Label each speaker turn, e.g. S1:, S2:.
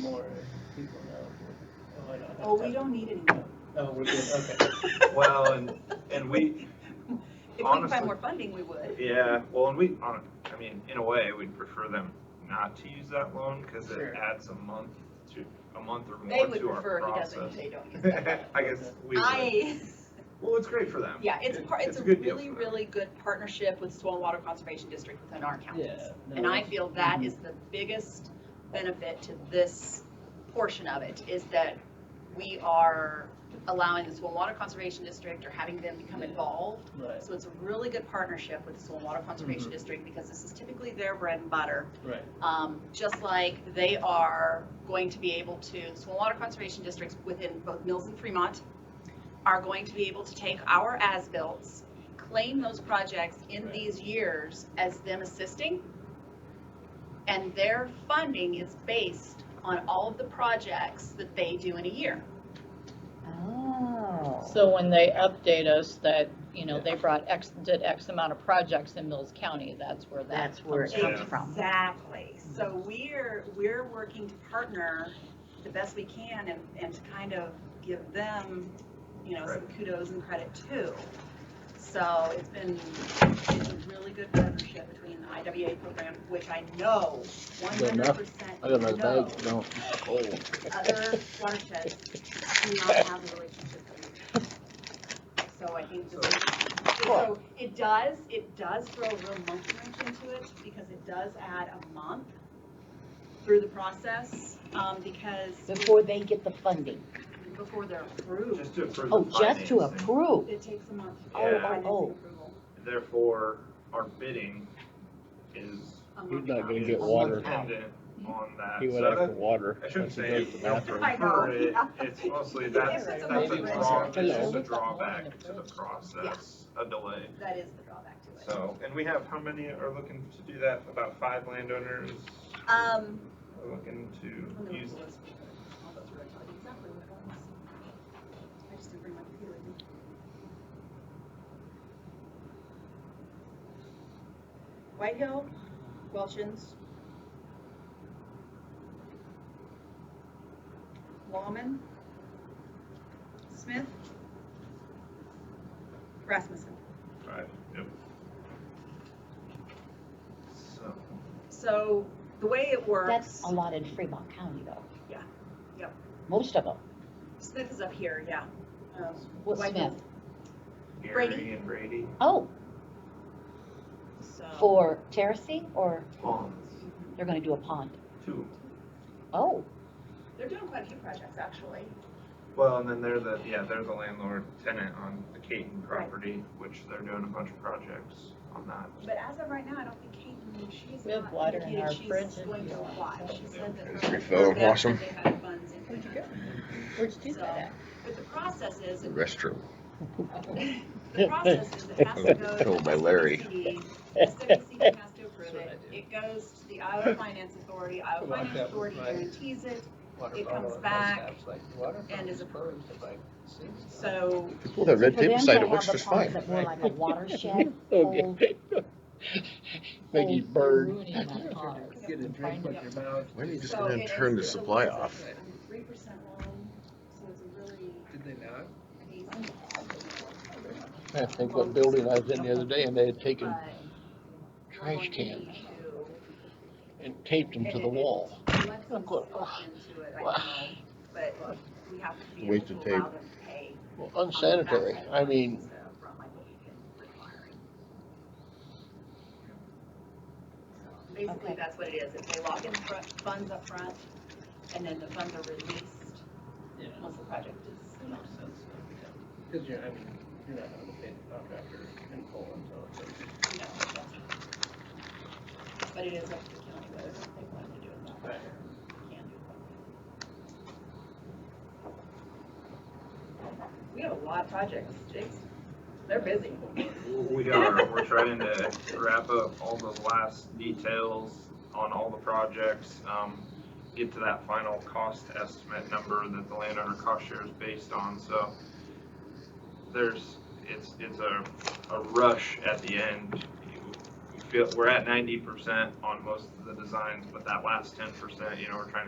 S1: more if people know. Oh, I don't have
S2: Oh, we
S1: time.
S2: don't need any more.
S1: No, we're good, okay.
S3: Well, and, and we,
S2: If we could
S3: Honestly.
S2: find more funding, we would.
S3: yeah, well, and we, hon- I mean, in a way, we'd prefer them not to use that loan because it
S1: Sure.
S3: adds a month to, a month or
S2: They
S3: more
S2: would
S3: to our
S2: prefer he
S3: process.
S2: doesn't, they don't use that.
S3: I guess we would.
S2: I,
S3: Well, it's great for them.
S2: yeah, it's a part, it's a
S3: good deal
S2: really,
S3: for them.
S2: really good partnership with Stormwater Conservation District within our counties.
S1: Yeah, no,
S2: And I
S1: that's- mhm.
S2: feel that is the biggest benefit to this portion of it, is that we are allowing the Stormwater Conservation District or having them become involved
S1: Right,
S2: So it's a really good partnership with the Water Conservation
S1: Mm-hmm.
S3: Mhm.
S2: District because this is typically their bread and butter.
S1: right,
S2: Um, just like they are going to be able to, Water Conservation Districts within both Mills and Fremont are going to be able to take our as-bills, claim those projects in
S1: Right.
S2: these years as them assisting. And their funding is based on all of the projects that they do in a year.
S4: Oh.
S5: So when they update us that, you know, they brought X, did X amount of projects in Mills County, that's where that
S4: That's where it
S3: Yeah.
S4: comes from.
S2: Exactly. So we're, we're working to partner the best we can and, and to kind of give them, you know, some kudos and credit too. So it's been, it's a really good partnership between the IWA program, which I know one
S6: Good
S2: hundred
S6: enough.
S2: percent
S6: I got my
S2: know
S6: bag, no, cold.
S2: other watersheds do not have a relationship with them. So I think this is, so it does, it does throw a real monkey wrench into it because it does add a month through the process, um, because
S4: Before they get the funding.
S2: before they're approved,
S3: Just to approve.
S4: Oh,
S3: the
S4: just to
S3: financing.
S4: approve.
S2: it takes a month.
S3: Oh, oh,
S2: financing
S4: oh.
S2: approval.
S3: Therefore, our bidding is.
S2: A
S6: He's
S2: month.
S6: not gonna
S3: is
S6: get water.
S3: Dependent on that.
S6: He went
S3: So
S6: after
S3: that-
S6: water.
S3: I shouldn't
S6: Once he
S3: say
S6: goes to
S3: you
S6: the
S3: know,
S6: bathroom.
S3: prefer it,
S2: I know.
S3: it's mostly, that's,
S2: It's
S3: that's
S2: a
S3: a
S6: major
S3: draw,
S6: concern.
S3: that's a
S6: Hello.
S3: drawback to the process, a delay.
S2: That is the drawback to it.
S3: So, and we have, how many are looking to do that? About five landowners
S2: Um.
S3: are looking
S2: When
S3: to
S2: they
S3: use.
S2: were list, all those were exactly what it was. I just didn't bring my computer with me. White Hill, Welchins. Lawman. Smith. Rasmussen.
S3: Right, yep. So,
S2: So the way it works,
S4: That's a lot in Fremont County though.
S2: Yeah. Yep.
S4: Most of them.
S2: Smith is up here, yeah. Um,
S4: What
S2: White Hill,
S4: Smith?
S2: Brady.
S3: Gary and Brady,
S4: Oh,
S2: So.
S4: for terracing or
S3: Bonds,
S4: they're gonna do a pond?
S3: two.
S4: Oh,
S2: They're doing quite a few projects, actually.
S3: Well, and then they're the, yeah, they're the landlord tenant on the Caton property, which they're doing a bunch of projects on that.
S2: But as of right now, I don't think Kate, knew she's
S5: We have
S2: not
S5: water in
S2: indicated
S5: our
S2: she's
S5: fridge and-
S2: going to apply. She said that.
S6: Just
S2: her-
S6: refill and
S2: her
S6: wash 'em.
S2: backup, they had funds in
S5: Where'd you
S2: there.
S5: go? Where'd you do that at?
S2: But the process is,
S6: The restroom.
S2: the process is it has to go. to
S6: Told by
S2: the
S6: Larry.
S2: SWCD. The SWCD has to
S1: That's
S2: approve
S1: what
S2: it.
S1: I do.
S2: It goes to the Iowa Finance Authority, Iowa
S1: Come on,
S2: Finance
S1: Captain,
S2: Authority
S1: right.
S2: guarantees it.
S1: Water
S2: It
S1: bottle
S2: comes
S1: has
S2: back
S1: caps, like, the water
S2: and is
S1: fountain's closed at, like, six.
S2: So
S6: People that
S4: for
S6: red
S4: them
S6: tape
S4: to
S6: side,
S4: have
S6: it works
S4: a
S6: just
S4: pond
S6: fine.
S4: that more like a watershed, hold,
S6: Okay. Make you
S5: Oh,
S6: burn.
S5: ruining that
S2: uh,
S5: pond.
S1: Get a drink with your mouth.
S6: Why are you just
S2: So
S6: gonna
S2: it
S6: turn
S2: is- it
S6: the supply
S2: was a-
S6: off?
S2: Three percent loan, so it's a really
S1: Did they not?
S2: amazing,
S6: I think what building I was in the other day and they had
S2: but.
S6: taken
S2: we're
S6: trash
S2: going to
S6: cans
S2: need to-
S6: and taped them to the wall.
S2: Alexis
S6: I'm going,
S2: spoke
S6: "Ugh."
S2: into it, I
S6: Wow.
S2: know, but we have to be able
S6: Wasted
S2: to allow them to pay.
S6: Well,
S2: on the back
S6: Unsanitary.
S2: end
S6: I
S2: of it
S6: mean,
S2: instead of from, like, what we can require. So Basically,
S4: Okay.
S2: that's what it is, if they lock in fr- funds up front, and then the funds are released
S1: Yeah.
S2: once the project is.
S1: That makes sense. Cause you're, I mean, you're not gonna pay the contractor in full until it's.
S2: No, that's- But it is up to the county whether or not they want to do it that way or can do it that way. We have a lot of projects, Jake's, they're busy.
S3: We are, we're trying to wrap up all the last details on all the projects, um, get to that final cost estimate number that the landowner cost share is based on, so there's, it's, it's a, a rush at the end. We feel, we're at ninety percent on most of the designs, but that last ten percent, you know, we're trying to